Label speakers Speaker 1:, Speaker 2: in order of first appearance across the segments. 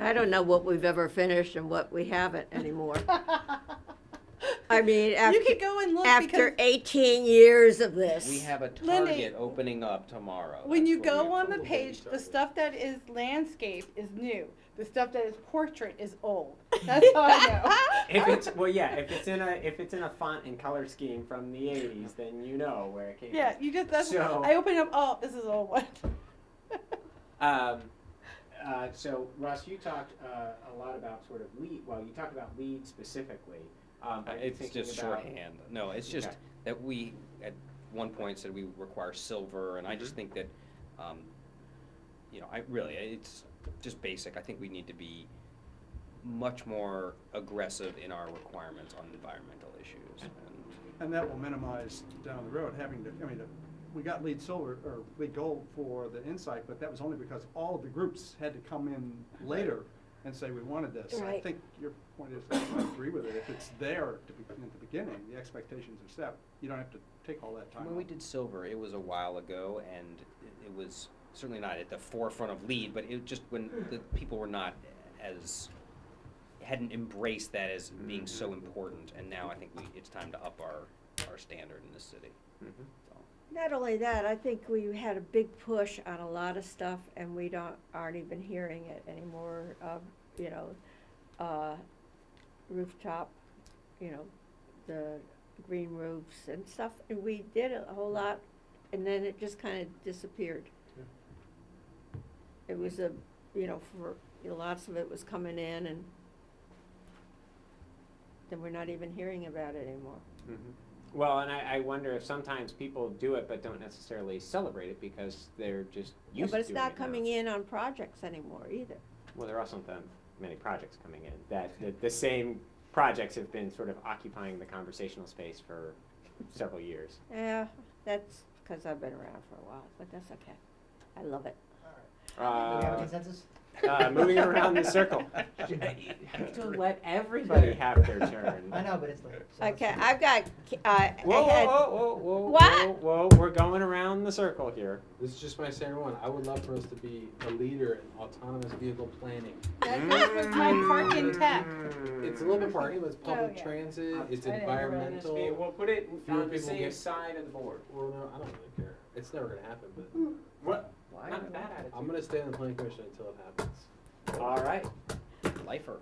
Speaker 1: I don't know what we've ever finished and what we haven't anymore. I mean, after,
Speaker 2: you could go and look
Speaker 1: after
Speaker 2: because
Speaker 1: 18 years of this.
Speaker 3: We have a
Speaker 2: Lindy,
Speaker 3: target opening up tomorrow.
Speaker 2: when
Speaker 3: That's
Speaker 2: you
Speaker 3: what
Speaker 2: go
Speaker 3: we-
Speaker 2: on the
Speaker 3: we'll
Speaker 2: page,
Speaker 3: get
Speaker 2: the
Speaker 3: started.
Speaker 2: stuff that is landscape is new. The stuff that is portrait is old. That's how I know.
Speaker 4: If it's well, yeah. If it's in a if it's in a font and color scheme from the '80s, then you know where it came.
Speaker 2: Yeah, you just that's
Speaker 4: So-
Speaker 2: I open up. Oh, this is an old one.
Speaker 4: From. Um, uh, so Russ, you talked uh, a lot about sort of lead. Well, you talked about lead specifically. Um,
Speaker 3: Uh,
Speaker 4: are you
Speaker 3: It's
Speaker 4: thinking
Speaker 3: just
Speaker 4: about-
Speaker 3: shorthand. No, it's just
Speaker 4: Okay.
Speaker 3: that we, at one point said we require silver, and I
Speaker 4: Mm-hmm.
Speaker 3: just think that, um, you know, I really, it's just basic. I think we need to be much more aggressive in our requirements on environmental issues. And
Speaker 5: And that will minimize down the road having to, I mean, we got lead silver or lead gold for the insight, but that was only because all of the groups had to come in later and say we wanted this. I
Speaker 1: Right.
Speaker 5: think your point is, I agree with it. If it's there to be, at the beginning, the expectations are set. You don't have to take all that time.
Speaker 3: When we did silver, it was a while ago, and it- it was certainly not at the forefront of lead, but it just, when the people were not as, hadn't embraced that as being so important, and now I think we, it's time to up our, our standard in this city.
Speaker 5: Mm-hmm.
Speaker 4: Mhm.
Speaker 3: So,
Speaker 1: Not only that, I think we had a big push on a lot of stuff and we don't, aren't even hearing it anymore, um, you know, uh, rooftop, you know, the green roofs and stuff, and we did a whole lot, and then it just kinda disappeared.
Speaker 5: Yeah.
Speaker 1: It was a, you know, for, you know, lots of it was coming in and then we're not even hearing about it anymore.
Speaker 4: Mhm. Well, and I, I wonder if sometimes people do it but don't necessarily celebrate it because they're just
Speaker 1: Yeah,
Speaker 4: used
Speaker 1: but
Speaker 4: to
Speaker 1: it's
Speaker 4: doing
Speaker 1: not
Speaker 4: it now.
Speaker 1: coming in on projects anymore either.
Speaker 4: Well, there are also not that many projects coming in that the, the same projects have been sort of occupying the conversational space for several years.
Speaker 1: Yeah, that's because I've been around for a while, but that's okay. I love it.
Speaker 6: Do we have a
Speaker 4: Uh,
Speaker 6: consensus?
Speaker 4: uh, moving around the circle. You have to let everybody have their turn.
Speaker 6: I know, but it's late. so let's
Speaker 1: Okay,
Speaker 6: do it.
Speaker 1: I've got, ki- uh, I, I
Speaker 4: Whoa, whoa,
Speaker 1: had,
Speaker 4: whoa, whoa, whoa,
Speaker 1: What?
Speaker 4: whoa, We're going around the circle here.
Speaker 7: This is just my second one. I would love for us to be a leader in autonomous vehicle planning.
Speaker 2: That, that was my park in tech.
Speaker 4: Mm.
Speaker 7: It's a little bit parking, but it's public
Speaker 2: Oh, yeah.
Speaker 7: transit, it's
Speaker 2: I didn't realize
Speaker 7: environmental.
Speaker 4: We'll put it
Speaker 7: Fewer
Speaker 4: on the
Speaker 7: people
Speaker 4: same
Speaker 7: get-
Speaker 4: side of the board.
Speaker 7: Well, no, I don't really care. It's never gonna happen, but
Speaker 1: Hmm.
Speaker 4: What?
Speaker 3: Why?
Speaker 4: Not a bad attitude.
Speaker 7: I'm gonna stay on the planning commission until it happens.
Speaker 4: All right.
Speaker 3: Lifer.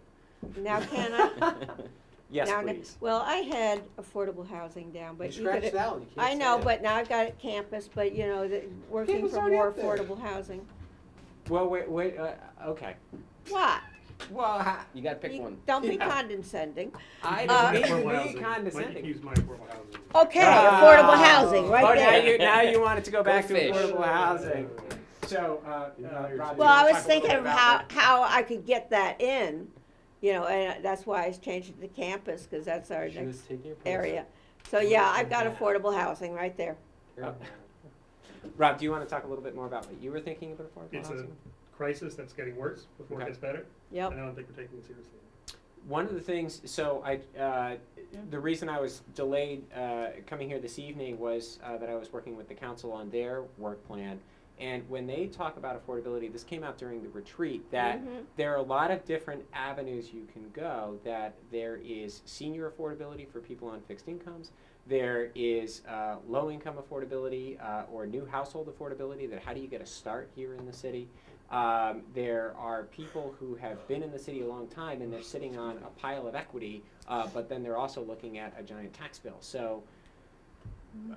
Speaker 1: now can I?
Speaker 4: Yes,
Speaker 1: Now-
Speaker 4: please.
Speaker 1: Well, I had affordable housing down,
Speaker 7: You
Speaker 1: but you
Speaker 7: scratched
Speaker 1: could,
Speaker 7: it out, you can't
Speaker 1: I
Speaker 7: say
Speaker 1: know,
Speaker 7: it.
Speaker 1: but now I've got it campus, but you know, the, working
Speaker 7: Campus
Speaker 1: for
Speaker 7: already
Speaker 1: more
Speaker 7: up there.
Speaker 1: affordable housing.
Speaker 4: Well, wait, wait. Uh, okay.
Speaker 1: What?
Speaker 4: Well, ha-
Speaker 3: You gotta pick
Speaker 1: You-
Speaker 3: one.
Speaker 1: Don't be
Speaker 4: Yeah.
Speaker 1: condescending.
Speaker 4: I
Speaker 1: Uh,
Speaker 4: didn't mean
Speaker 5: Affordable
Speaker 4: to
Speaker 5: housing.
Speaker 4: be
Speaker 5: Like,
Speaker 4: condescending.
Speaker 5: Use my affordable housing.
Speaker 1: Okay,
Speaker 4: Ah.
Speaker 1: affordable housing,
Speaker 4: oh,
Speaker 1: right
Speaker 4: now
Speaker 1: there.
Speaker 4: you now you wanted to go back to
Speaker 3: fish.
Speaker 4: affordable housing. So, uh, uh,
Speaker 7: Yeah, you're
Speaker 4: Rob,
Speaker 7: too-
Speaker 4: you
Speaker 1: Well, I was
Speaker 4: wanna talk a little
Speaker 1: thinking
Speaker 4: bit
Speaker 1: of
Speaker 4: about
Speaker 1: how,
Speaker 4: that?
Speaker 1: how I could get that in, you know, and uh, that's why I changed it to campus, because that's our
Speaker 7: She was
Speaker 1: next
Speaker 7: taking your place.
Speaker 1: area. So, yeah, I've got affordable housing right there.
Speaker 7: Uh,
Speaker 4: Rob, do you want to talk a little bit more about what you were thinking about affordable
Speaker 8: It's a-
Speaker 4: housing?
Speaker 8: crisis that's getting worse before
Speaker 4: Okay.
Speaker 8: it gets better.
Speaker 1: Yep.
Speaker 8: And I don't think we're taking it seriously.
Speaker 4: One of the things, so I, uh, the reason I was delayed uh, coming here this evening was uh, that I was working with the council on their work plan. And when they talk about affordability, this came out during the retreat, that
Speaker 1: Mhm.
Speaker 4: there are a lot of different avenues you can go. That there is senior affordability for people on fixed incomes. There is uh, low income affordability uh, or new household affordability. That how do you get a start here in the city? Um, there are people who have been in the city a long time and they're sitting on a pile of equity, uh, but then they're also looking at a giant tax bill. So.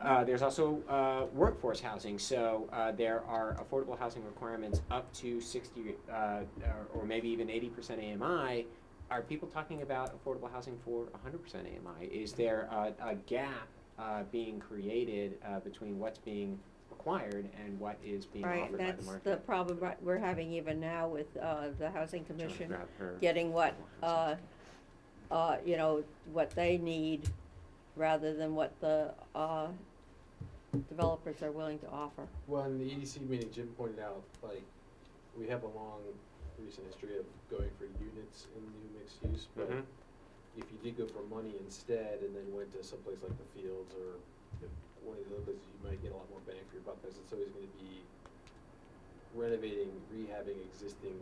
Speaker 4: Uh, there's also uh, workforce housing. So uh, there are affordable housing requirements up to 60 uh, or, or maybe even 80% AMI. Are people talking about affordable housing for 100% AMI? Is there a, a gap uh, being created uh, between what's being required and what is being
Speaker 1: Right,
Speaker 4: offered
Speaker 1: that's
Speaker 4: by the
Speaker 1: the
Speaker 4: market?
Speaker 1: problem right- we're having even now with, uh, the housing
Speaker 4: Trying to
Speaker 1: commission,
Speaker 4: grab her.
Speaker 1: getting what, uh, uh, you know, what they need rather than what the, uh, developers are willing to offer.
Speaker 7: Well, in the EDC meeting, Jim pointed out, like, we have a long recent history of going for units in new mixed use, but
Speaker 4: Mhm.
Speaker 7: if you did go for money instead and then went to someplace like the Fields or if one of the other places, you might get a lot more bang for your buck because it's always going to be renovating, rehabbing existing